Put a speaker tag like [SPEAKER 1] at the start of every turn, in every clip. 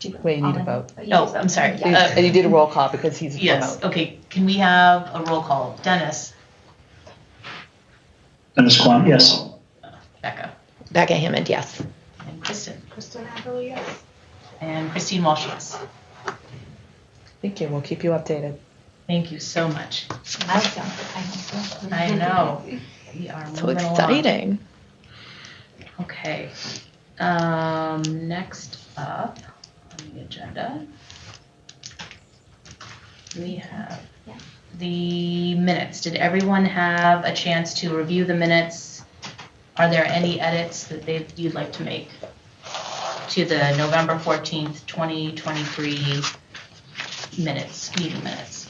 [SPEAKER 1] Do
[SPEAKER 2] Wait, you need a vote.
[SPEAKER 1] No, I'm sorry.
[SPEAKER 2] And
[SPEAKER 1] Uh,
[SPEAKER 2] and you did a roll call because he's
[SPEAKER 1] Yes,
[SPEAKER 2] remote.
[SPEAKER 1] okay, can we have a roll call? Dennis,
[SPEAKER 3] Dennis Quan, yes.
[SPEAKER 1] Becca,
[SPEAKER 4] Becca Hammond, yes.
[SPEAKER 1] and Kristen,
[SPEAKER 5] Kristen Everly, yes.
[SPEAKER 1] and Christine Walsh, yes.
[SPEAKER 2] Thank you, we'll keep you updated.
[SPEAKER 1] Thank you so much.
[SPEAKER 5] Milestone for Pine Hill.
[SPEAKER 1] I know. We are
[SPEAKER 4] So
[SPEAKER 1] moving along.
[SPEAKER 4] exciting.
[SPEAKER 1] Okay. Um, next up on the agenda, we have
[SPEAKER 5] Yeah.
[SPEAKER 1] the minutes. Did everyone have a chance to review the minutes? Are there any edits that they, you'd like to make to the November 14th, 2023 minutes, meeting minutes?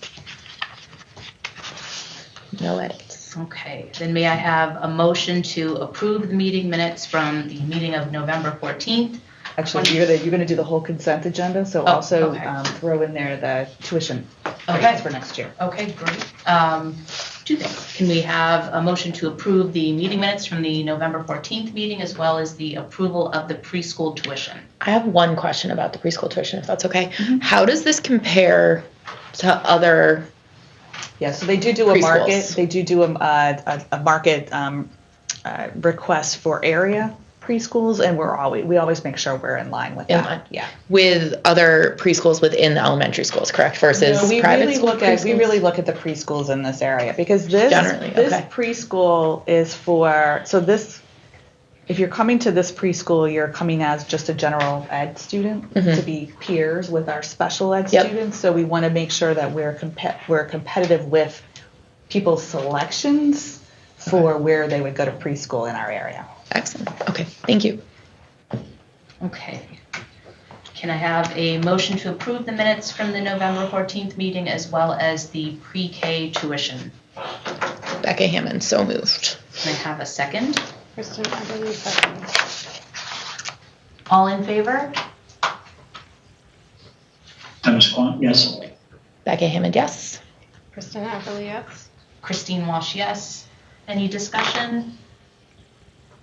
[SPEAKER 4] No edits.
[SPEAKER 1] Okay, then may I have a motion to approve the meeting minutes from the meeting of November 14th?
[SPEAKER 2] Actually, you're gonna, you're gonna do the whole consent agenda, so
[SPEAKER 1] Oh,
[SPEAKER 2] also
[SPEAKER 1] okay.
[SPEAKER 2] um, throw in there the tuition
[SPEAKER 1] Okay.
[SPEAKER 2] rates for next year.
[SPEAKER 1] Okay, great. Um, Two things. Can we have a motion to approve the meeting minutes from the November 14th meeting as well as the approval of the preschool tuition?
[SPEAKER 4] I have one question about the preschool tuition, if that's okay.
[SPEAKER 2] Mm-hmm.
[SPEAKER 4] How does this compare to other?
[SPEAKER 2] Yeah, so they do do a market,
[SPEAKER 4] Preschools.
[SPEAKER 2] they do do a, a, a market um, uh, request for area preschools, and we're always, we always make sure we're in line with
[SPEAKER 4] In
[SPEAKER 2] that.
[SPEAKER 4] line.
[SPEAKER 2] Yeah.
[SPEAKER 4] With other preschools within the elementary schools, correct? Versus
[SPEAKER 2] No, we
[SPEAKER 4] private
[SPEAKER 2] really
[SPEAKER 4] school
[SPEAKER 2] look at we
[SPEAKER 4] preschools?
[SPEAKER 2] really look at the preschools in this area because this
[SPEAKER 4] Generally,
[SPEAKER 2] this
[SPEAKER 4] okay.
[SPEAKER 2] preschool is for so this if you're coming to this preschool you're coming as just a general ed student to be peers with our special ed
[SPEAKER 4] Yep.
[SPEAKER 2] students so we want to make sure that we're compe- we're competitive with people's selections for where they would go to preschool in our area.
[SPEAKER 4] Excellent. Okay, thank you.
[SPEAKER 1] Okay. Can I have a motion to approve the minutes from the November 14th meeting as well as the pre-K tuition?
[SPEAKER 4] Becca Hammond, so moved.
[SPEAKER 1] Can I have a second?
[SPEAKER 5] Kristen Everly, second.
[SPEAKER 1] All in favor?
[SPEAKER 3] Dennis Quan, yes.
[SPEAKER 4] Becca Hammond, yes.
[SPEAKER 5] Kristen Everly, yes.
[SPEAKER 1] Christine Walsh, yes. Any discussion?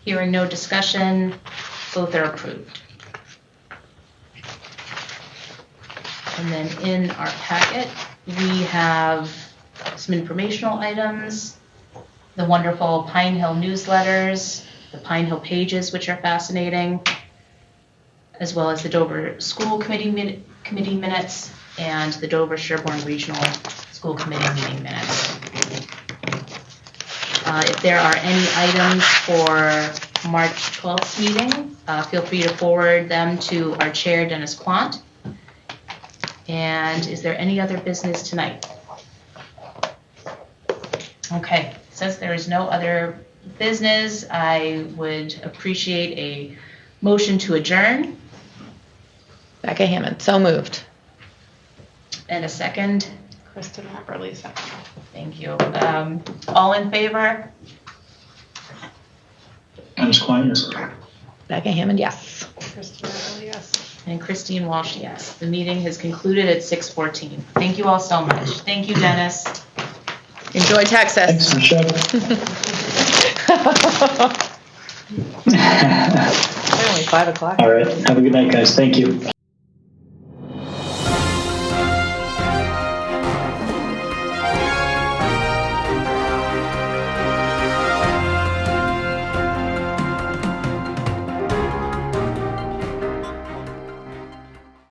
[SPEAKER 1] Hearing no discussion, both are approved. And then in our packet, we have some informational items, the wonderful Pine Hill newsletters, the Pine Hill pages, which are fascinating, as well as the Dover School Committee min- Committee minutes and the Dover Sherborne Regional School Committee meeting minutes. Uh, If there are any items for March 12th meeting, uh, feel free to forward them to our chair, Dennis Quant. And is there any other business tonight? Okay, since there is no other business, I would appreciate a motion to adjourn
[SPEAKER 4] Becca Hammond, so moved.
[SPEAKER 1] and a second.
[SPEAKER 5] Kristen Everly, second.
[SPEAKER 1] Thank you. Um, All in favor?
[SPEAKER 3] Dennis Quan, yes.
[SPEAKER 4] Becca Hammond, yes.
[SPEAKER 5] Kristen Everly, yes.
[SPEAKER 1] And Christine Walsh, yes. The meeting has concluded at 6:14. Thank you all so much. Thank you, Dennis.
[SPEAKER 4] Enjoy Texas.
[SPEAKER 3] Thanks, Michelle.
[SPEAKER 2] It's only five o'clock.
[SPEAKER 3] All right, have a good night, guys. Thank you.